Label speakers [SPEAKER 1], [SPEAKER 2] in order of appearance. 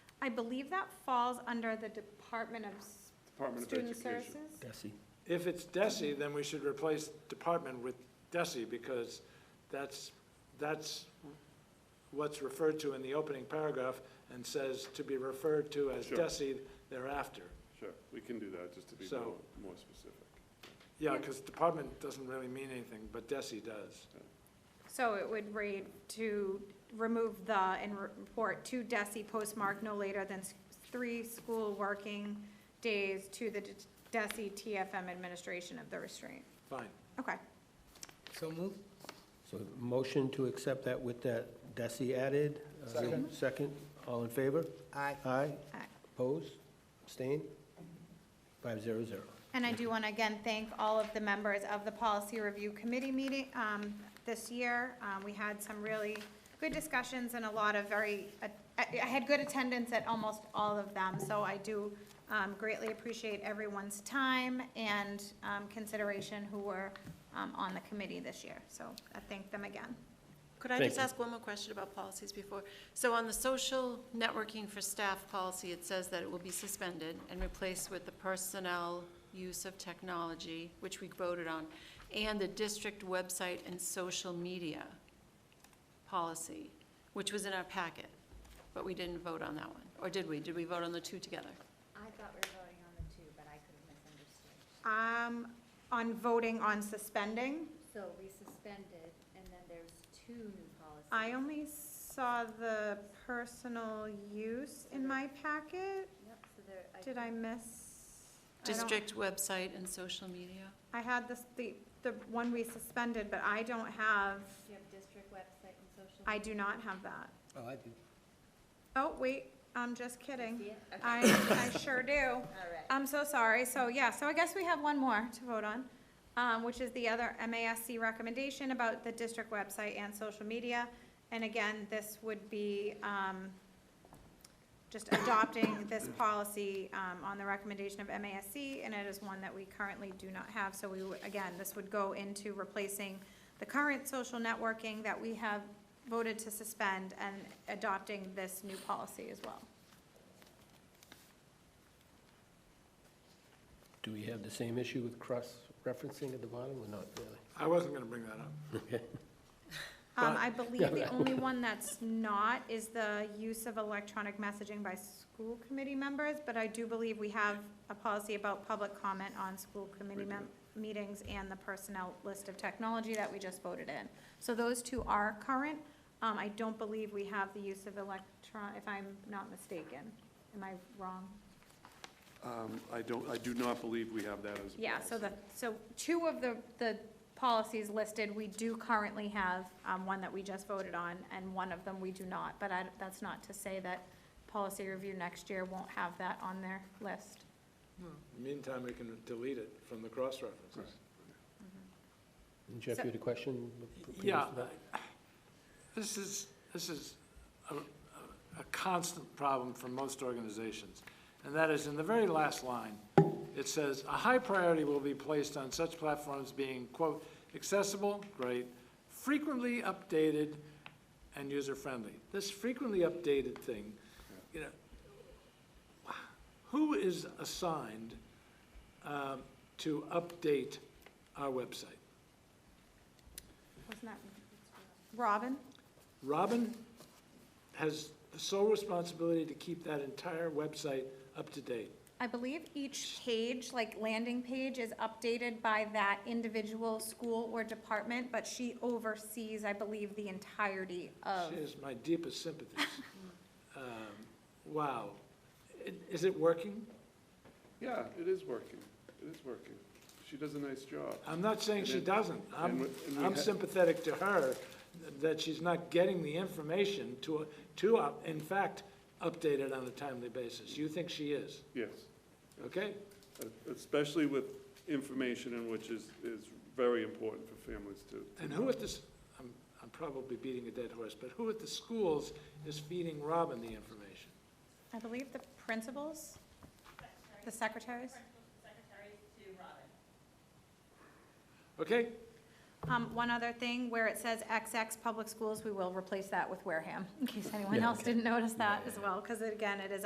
[SPEAKER 1] I believe that falls under the Department of S-
[SPEAKER 2] Department of
[SPEAKER 1] Student
[SPEAKER 2] Education.
[SPEAKER 1] Services.
[SPEAKER 3] Desi.
[SPEAKER 2] If it's DESI, then we should replace department with DESI, because that's, that's what's referred to in the opening paragraph and says to be referred to as
[SPEAKER 4] Sure.
[SPEAKER 2] DESI thereafter.
[SPEAKER 4] Sure, we can do that, just to be
[SPEAKER 2] So-
[SPEAKER 4] more, more specific.
[SPEAKER 2] Yeah, because department doesn't really mean anything, but DESI does.
[SPEAKER 1] So it would read to remove the and report to DESI postmark no later than s- three school working days to the d- DESI TFM administration of the restraint.
[SPEAKER 2] Fine.
[SPEAKER 1] Okay.
[SPEAKER 5] So moved.
[SPEAKER 3] So motion to accept that with that Desi added. Uh,
[SPEAKER 5] Second.
[SPEAKER 3] Second, all in favor?
[SPEAKER 5] Aye.
[SPEAKER 3] Aye.
[SPEAKER 1] Aye.
[SPEAKER 3] Opposed? Abstained? Five zero zero.
[SPEAKER 1] And I do want to again thank all of the members of the Policy Review Committee meeting um, this year. Um, We had some really good discussions and a lot of very, I I had good attendance at almost all of them, so I do um, greatly appreciate everyone's time and um, consideration who were um, on the committee this year, so I thank them again.
[SPEAKER 6] Could I
[SPEAKER 3] Thank
[SPEAKER 6] just
[SPEAKER 3] you.
[SPEAKER 6] ask one more question about policies before? So on the social networking for staff policy, it says that it will be suspended and replaced with the personnel use of technology, which we voted on, and the district website and social media policy, which was in our packet, but we didn't vote on that one. Or did we? Did we vote on the two together?
[SPEAKER 7] I thought we were voting on the two, but I could have
[SPEAKER 1] Um,
[SPEAKER 7] misunderstood.
[SPEAKER 1] On voting on suspending,
[SPEAKER 7] So we suspended, and then there's two new policies.
[SPEAKER 1] I only saw the personal use in my packet.
[SPEAKER 7] Yep, so there, I.
[SPEAKER 1] Did I miss? I don't-
[SPEAKER 6] District website and social media?
[SPEAKER 1] I had this, the, the one we suspended, but I don't have,
[SPEAKER 7] You have district website and social.
[SPEAKER 1] I do not have that.
[SPEAKER 5] Oh, I do.
[SPEAKER 1] Oh, wait, I'm just kidding.
[SPEAKER 7] See it? Okay.
[SPEAKER 1] I, I sure do.
[SPEAKER 7] All right.
[SPEAKER 1] I'm so sorry. So, yeah, so I guess we have one more to vote on, um, which is the other MASC recommendation about the district website and social media. And again, this would be, um, just adopting this policy, um, on the recommendation of MASC, and it is one that we currently do not have. So we, would- again, this would go into replacing the current social networking that we have voted to suspend and adopting this new policy as well.
[SPEAKER 3] Do we have the same issue with cross-referencing at the bottom or not really?
[SPEAKER 2] I wasn't going to bring that up.
[SPEAKER 1] Um,
[SPEAKER 2] But-
[SPEAKER 1] I believe the only one that's not is the use of electronic messaging by school committee members, but I do believe we have a policy about public comment on school committee mem- meetings and the personnel list of technology that we just voted in. So those two are current. Um, I don't believe we have the use of electron, if I'm not mistaken. Am I wrong?
[SPEAKER 4] Um, I don't, I do not believe we have that as. a
[SPEAKER 1] Yeah, so
[SPEAKER 4] policy.
[SPEAKER 1] the, so two of the, the policies listed, we do currently have, um, one that we just voted on, and one of them we do not, but I, that's not to say that policy review next year won't have that on their list.
[SPEAKER 2] In the meantime, we can delete it from the cross-references.
[SPEAKER 3] Jeff, you had a question? previous to
[SPEAKER 2] Yeah,
[SPEAKER 3] that?
[SPEAKER 2] This is, this is a, a constant problem for most organizations. And that is, in the very last line, it says, "A high priority will be placed on such platforms being, quote, accessible, great, frequently updated, and user-friendly." This frequently updated thing, you know, who is assigned um, to update our website?
[SPEAKER 1] Wasn't that, Robin?
[SPEAKER 2] Robin has the sole responsibility to keep that entire website up to date.
[SPEAKER 1] I believe each page, like landing page, is updated by that individual school or department, but she oversees, I believe, the entirety of.
[SPEAKER 2] She has my deepest sympathies. Um, Wow. I- Is it working?
[SPEAKER 4] Yeah, it is working, it is working. She does a nice job.
[SPEAKER 2] I'm not saying she
[SPEAKER 4] And it-
[SPEAKER 2] doesn't.
[SPEAKER 4] and
[SPEAKER 2] I'm,
[SPEAKER 4] we- and we
[SPEAKER 2] I'm
[SPEAKER 4] ha-
[SPEAKER 2] sympathetic to her that she's not getting the information to, to, uh, in fact, update it on a timely basis. You think she is,
[SPEAKER 4] Yes.
[SPEAKER 2] okay?
[SPEAKER 4] especially with information in which is, is very important for families to.
[SPEAKER 2] And who at this, I'm, I'm probably beating a dead horse, but who at the schools is feeding Robin the information?
[SPEAKER 1] I believe the principals, the secretaries.
[SPEAKER 2] Okay?
[SPEAKER 1] Um, one other thing, where it says XX Public Schools, we will replace that with Wareham, in case anyone
[SPEAKER 3] Yeah,
[SPEAKER 1] else
[SPEAKER 3] okay.
[SPEAKER 1] didn't notice that as well, because again, it is